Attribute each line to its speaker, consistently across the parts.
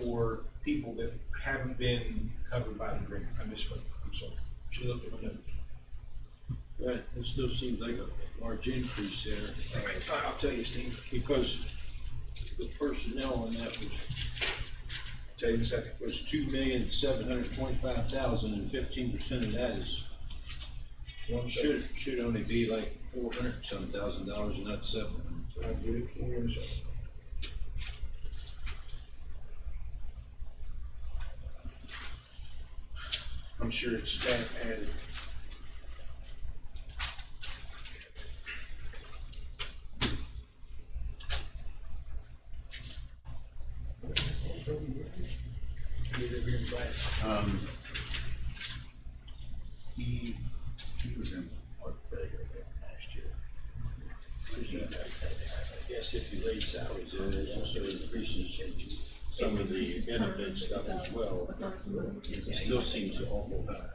Speaker 1: for people that haven't been covered by the agreement. I misspoke, I'm sorry. Should look at my notes.
Speaker 2: Right, it still seems like a large increase there,
Speaker 1: All right, fine, I'll tell you, Steve.
Speaker 2: because the personnel on that was,
Speaker 1: Tell you in a second.
Speaker 2: was two million, seven hundred twenty-five thousand, and fifteen percent of that is,
Speaker 1: One second.
Speaker 2: should, should only be like four hundred and some thousand dollars, and not seven hundred.
Speaker 1: I'll get it for you in a second. I'm sure it's staff added.
Speaker 3: Um, he, he was in heart failure last year.
Speaker 2: I guess if you raise salaries, there is also increases in some of the benefit stuff as well. It still seems awful high.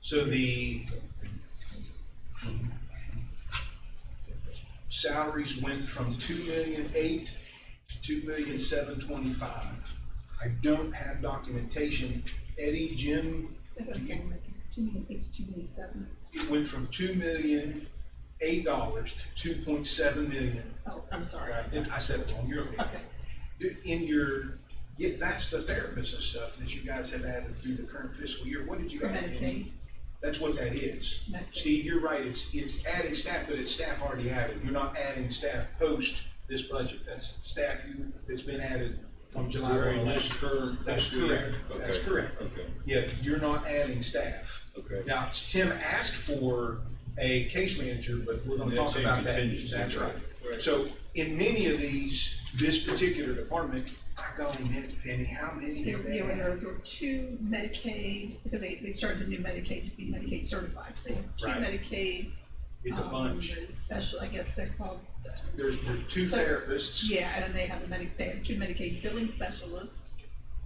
Speaker 1: So the salaries went from two million eight to two million seven twenty-five. I don't have documentation. Eddie, Jim,
Speaker 4: Two million eight, two million seven.
Speaker 1: it went from two million eight dollars to two point seven million.
Speaker 4: Oh, I'm sorry.
Speaker 1: Right, and I said it wrong, you're okay. In your, yeah, that's the therapist and stuff that you guys have added through the current fiscal year. What did you
Speaker 4: For
Speaker 1: add?
Speaker 4: Medicaid.
Speaker 1: That's what that is.
Speaker 4: Medicaid.
Speaker 1: Steve, you're right, it's, it's adding staff, but it's staff already added, you're not adding staff post this budget, that's staff you, that's been added from July
Speaker 2: Very
Speaker 1: one.
Speaker 2: nice current.
Speaker 1: That's correct, that's
Speaker 2: Okay,
Speaker 1: correct.
Speaker 2: Okay.
Speaker 1: Yeah, you're not adding staff.
Speaker 2: Okay.
Speaker 1: Now, Tim asked for a case manager, but we're gonna
Speaker 2: That's
Speaker 1: talk about
Speaker 2: in
Speaker 1: that,
Speaker 2: contingency.
Speaker 1: that's right.
Speaker 2: Right.
Speaker 1: So, in many of these, this particular department, I go, Miss Penny, how many
Speaker 4: There,
Speaker 1: do they
Speaker 4: yeah, well, there
Speaker 1: have?
Speaker 4: there were two Medicaid, because they, they started the new Medicaid to be Medicaid certified, so they have two
Speaker 1: Right.
Speaker 4: Medicaid.
Speaker 1: It's a
Speaker 4: um,
Speaker 1: bunch,
Speaker 4: those Special, I guess they're called, uh,
Speaker 1: there's, there's two
Speaker 4: So-
Speaker 1: therapists.
Speaker 4: yeah, and they have a Medi, they have two Medicaid billing specialists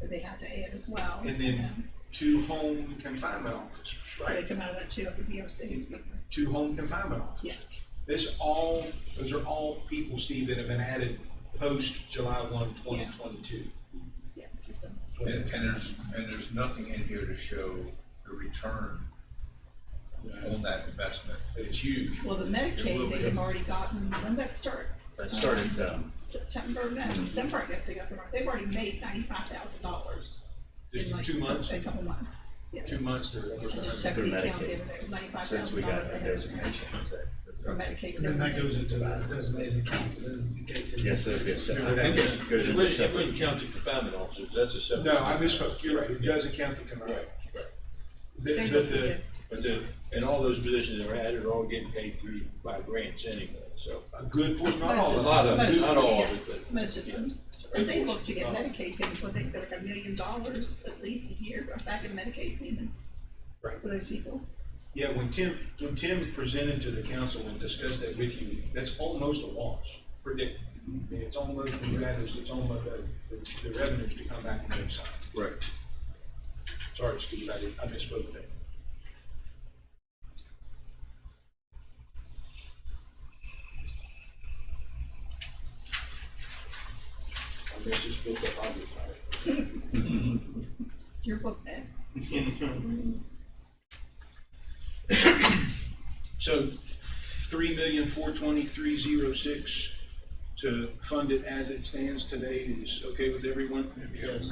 Speaker 4: that they had to add as well.
Speaker 1: And then two home confinement officers,
Speaker 4: They
Speaker 1: right?
Speaker 4: come out of that too, of the BOC.
Speaker 1: Two home confinement
Speaker 4: Yeah.
Speaker 1: officers. This all, those are all people, Steve, that have been added post July one, twenty twenty-two.
Speaker 4: Yeah. give them-
Speaker 5: And, and there's, and there's nothing in here to show the return on that investment.
Speaker 1: But it's huge.
Speaker 4: Well, the
Speaker 5: It will
Speaker 4: Medicaid,
Speaker 5: be.
Speaker 4: they have already gotten, when did that start?
Speaker 3: That started, um,
Speaker 4: September, no, December, I guess they got the, they've already made ninety-five thousand dollars.
Speaker 1: Just
Speaker 4: in like
Speaker 1: two months,
Speaker 4: A couple months, yes.
Speaker 1: two months there.
Speaker 4: I just
Speaker 1: was-
Speaker 4: checked
Speaker 3: Through
Speaker 4: the account the
Speaker 3: Medicaid.
Speaker 4: other day, it was ninety-five
Speaker 3: since we
Speaker 4: thousand
Speaker 3: got
Speaker 4: dollars.
Speaker 3: our designation, is that?
Speaker 4: For Medicaid.
Speaker 6: And then that goes into the designated account, then in case. it-
Speaker 3: Yes, that'd be a separate-
Speaker 6: No, that goes-
Speaker 3: It goes into
Speaker 2: wouldn't-
Speaker 3: separate.
Speaker 2: It wouldn't count the confinement officers, that's a separate.
Speaker 1: No, I misspoke, you're right, it doesn't count the confinement.
Speaker 2: Right, right.
Speaker 1: The-
Speaker 4: They
Speaker 1: the-
Speaker 4: looked at
Speaker 1: the-
Speaker 4: it.
Speaker 2: But the, and all those positions that were added are all getting paid through by grants anyway, so.
Speaker 1: A good portion, not all
Speaker 4: Most
Speaker 1: of
Speaker 2: A
Speaker 1: them.
Speaker 2: lot of
Speaker 4: most
Speaker 2: it, not all of it,
Speaker 4: yes,
Speaker 2: but-
Speaker 4: Most of them, and they look to get Medicaid payments, what they said, like a million dollars at least a year back in Medicaid payments.
Speaker 1: Right.
Speaker 4: For those people.
Speaker 1: Yeah, when Tim, when Tim presented to the council and discussed that with you, that's almost a wash, predict. I mean, It's almost, when you add this, it's almost, uh, the, the revenues to come back on the other side.
Speaker 2: Right.
Speaker 1: Sorry, excuse me, I did- I misspoke there. I missed this book up, I'll be fired.
Speaker 4: Your book bag.
Speaker 1: So three million, four twenty-three, zero six to fund it as it stands today is okay with everyone?
Speaker 6: Yes.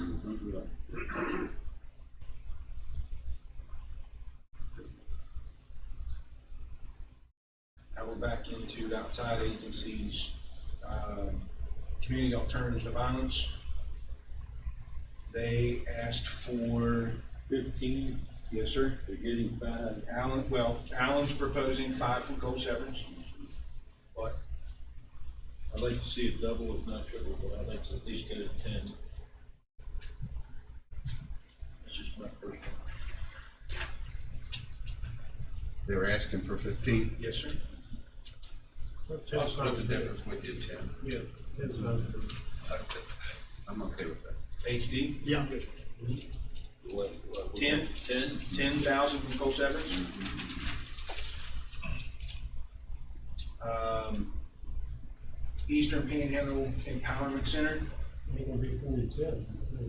Speaker 1: Now we're back into outside agencies, um, community alternatives to violence. They asked for,
Speaker 2: Fifteen,
Speaker 1: yes, sir,
Speaker 2: they're getting five,
Speaker 1: Alan, well, Alan's proposing five from Cole Severance. But
Speaker 2: I'd like to see it double, if not triple, but I'd like to at least get it ten. That's just my personal.
Speaker 3: They were asking for fifteen.
Speaker 1: Yes, sir.
Speaker 5: I'll split the difference with you, Tim.
Speaker 6: Yeah, that's what I was doing.
Speaker 3: I'm okay with that.
Speaker 1: HD,
Speaker 6: Yeah.
Speaker 2: What- what-
Speaker 1: Ten?
Speaker 2: Ten?
Speaker 1: ten thousand from Cole Severance. Um, Eastern Panhandle Empowerment Center,
Speaker 6: ain't gonna be forty-seven.